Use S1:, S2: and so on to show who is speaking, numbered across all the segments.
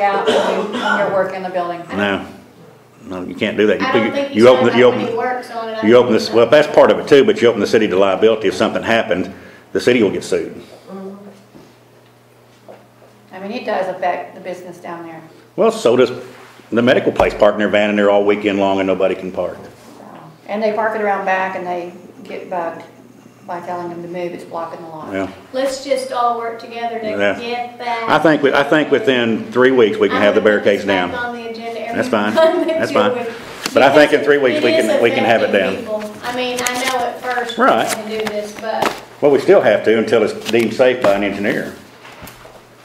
S1: out when you- when you're working the building.
S2: No, no, you can't do that. You
S3: I don't
S2: figure-
S3: think you should
S2: open the-
S3: have
S2: you
S3: that
S2: open-
S3: many works on it.
S2: You open this, well, that's part of it too, but you open the city to liability if something happened, the city will get sued.
S1: I mean, it does affect the business down there.
S2: Well, so does the medical place parking their van in there all weekend long and nobody can park.
S1: so. And they park it around back and they get bugged by telling them to move, it's blocking the lot.
S2: Yeah.
S3: Let's just all work together to
S2: Yeah.
S3: get that.
S2: I think, we- I think within three weeks, we can have the
S3: I'm gonna put this
S2: barricades down.
S3: back on the agenda every
S2: That's fine.
S3: time that
S2: That's
S3: you're
S2: fine.
S3: with-
S2: But I think in
S3: because
S2: three weeks, we
S3: it is
S2: can- we can have it
S3: affecting
S2: down.
S3: people. I mean, I know at first we're
S2: Right.
S3: gonna do this, but,
S2: Well, we still have to until it's deemed safe by an engineer.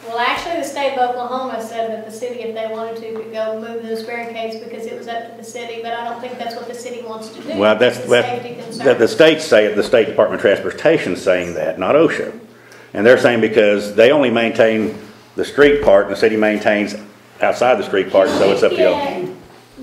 S3: well, actually, the state of Oklahoma said that the city, if they wanted to, could go move those barricades because it was up to the city, but I don't think that's what the city wants to do.
S2: Well, that's,
S3: It's a
S2: that,
S3: safety concern.
S2: that the states say, the State Department of Transportation's saying that, not OSHA. And they're saying because they only maintain the street part and the city maintains outside the street part, so it's up to y'all.
S3: Get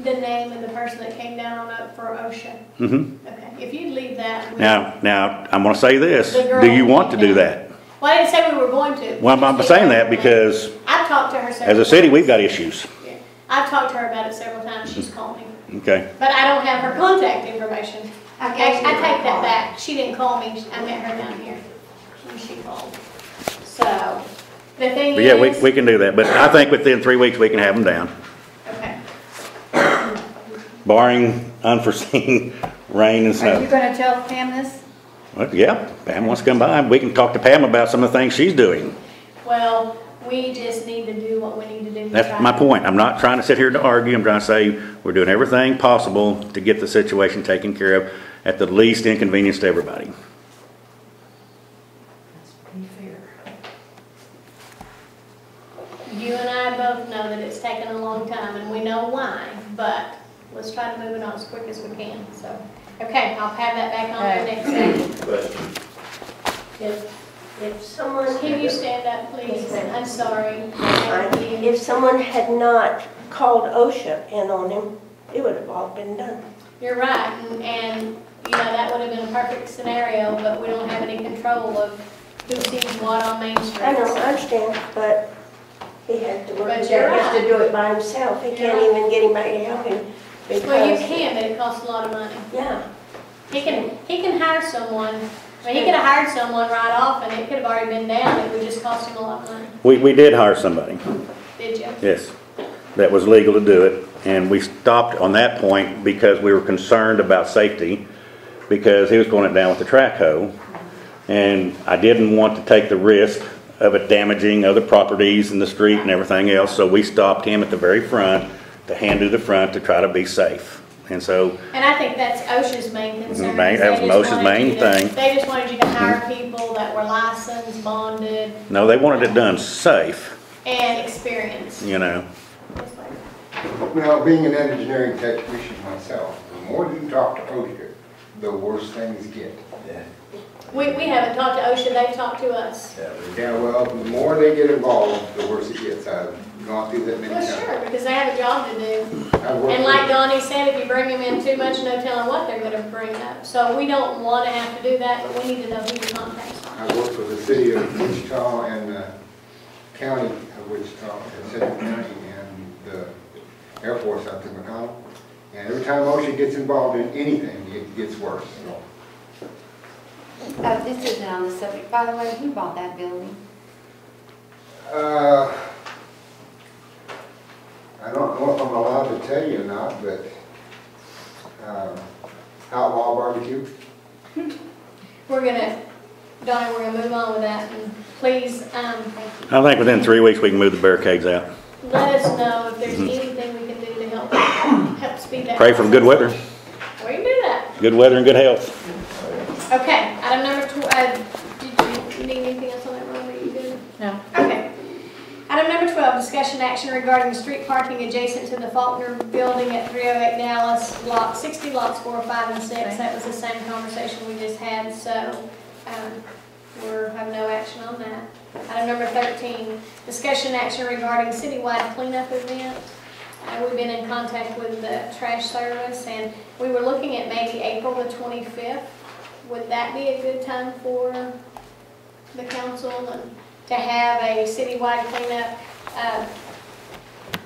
S3: The name of the person that came down on up for OSHA.
S2: Mhm.
S3: Okay, if you'd leave that. we-
S2: Now, now, I'm gonna say this,
S3: The girl
S2: do you want to do
S3: came down.
S2: that?
S3: Well, I didn't say we were going to.
S2: Well, I'm saying that because
S3: I've talked to her
S2: as
S3: several.
S2: a city, we've got issues,
S3: Yeah. I've talked to her about it several times, she's called me,
S2: okay?
S3: but I don't have her contact information. I, I
S1: Okay, she didn't
S3: take that
S1: call.
S3: back, she didn't call me, I met her down here when she called. So, the thing
S2: But
S3: is.
S2: yeah, we, we can do that, but I think within three weeks, we can have them down,
S3: Okay,
S2: barring unforeseen rain and snow.
S1: Are you gonna tell Pam this?
S2: Well, yeah, Pam wants to come by, and we can talk to Pam about some of the things she's doing.
S3: well, we just need to do what we need to do. to try
S2: That's my point. I'm not trying to sit here to argue. I'm trying to say we're doing everything possible to get the situation taken care of at the least inconvenience to everybody.
S3: You and I both know that it's taken a long time, and we know why, but let's try to move it on as quick as we can, so. Okay, I'll have that back on the
S1: Okay.
S3: next day.
S4: If, if someone,
S3: Can you stand up, please? I'm sorry. Thank you.
S4: if someone had not called OSHA in on him, it would have all been done.
S3: You're right, and, and, you know, that would have been a perfect scenario, but we don't have any control of who sees what on Main Street.
S4: I know, I understand, but he had to work,
S3: But
S4: he
S3: you're
S4: has
S3: right.
S4: to do it by himself. He can't even get anybody to help him because.
S3: Well, you can, but it costs a lot of money.
S4: Yeah,
S3: He can, he can hire someone, I mean, he could have hired someone right off, and it could have already been down, it would just cost him a lot of money.
S2: We, we did hire somebody,
S3: Did you?
S2: yes, that was legal to do it. And we stopped on that point because we were concerned about safety, because he was going it down with the track hoe. And I didn't want to take the risk of it damaging other properties in the street and everything else. So we stopped him at the very front to hand to the front to try to be safe. And so
S3: And I think that's OSHA's main concern.
S2: Mm-hmm. Main-
S3: is
S2: that
S3: they
S2: was
S3: just
S2: OSHA's
S3: wanted
S2: main
S3: you to-
S2: thing. Mm-hmm.
S3: They just wanted you to hire people that were licensed, bonded,
S2: No, they wanted it done safe,
S3: and experienced.
S2: you know.
S5: Now, being an engineering technician myself, the more you talk to OSHA, the worse things get.
S3: We, we haven't talked to OSHA, they've talked to us.
S5: Yeah, well, the more they get involved, the worse it gets. I've gone through that many
S3: Well, sure,
S5: times.
S3: because they have a job to do.
S5: I've worked
S3: And like
S5: with-
S3: Donnie said, if you bring them in too much, no telling what they're gonna bring up. So we don't wanna have to do that, but we need to know who your contacts are.
S5: I've worked with the city of Wichita and the county of Wichita, and Central County, and the Air Force out in McConnell. And every time OSHA gets involved in anything, it gets worse.
S6: Uh, this isn't on the subject, by the way, who bought that building?
S5: Uh, I don't know if I'm allowed to tell you or not, but, um, Outlaw Barbecue,
S3: We're gonna, Donnie, we're gonna move on with that, and please, um,
S2: I think within three weeks, we can move the barricades out.
S3: let us know if there's anything we can do to help, help speed that.
S2: Mm-hmm. Pray for good weather,
S3: process. We can do that.
S2: good weather and good health.
S3: Okay, item number tw, uh, did you need anything else on that one that you did?
S1: No.
S3: Okay. Item number twelve, discussion action regarding street parking adjacent to the Faulkner Building at three oh eight Dallas, lot sixty, lots four, five, and six.
S1: Okay.
S3: That was the same conversation we just had, so, um, we're, have no action on that. Item number thirteen, discussion action regarding citywide cleanup event. Uh, we've been in contact with the trash service, and we were looking at maybe April the twenty-fifth. Would that be a good time for the council and to have a citywide cleanup? Uh,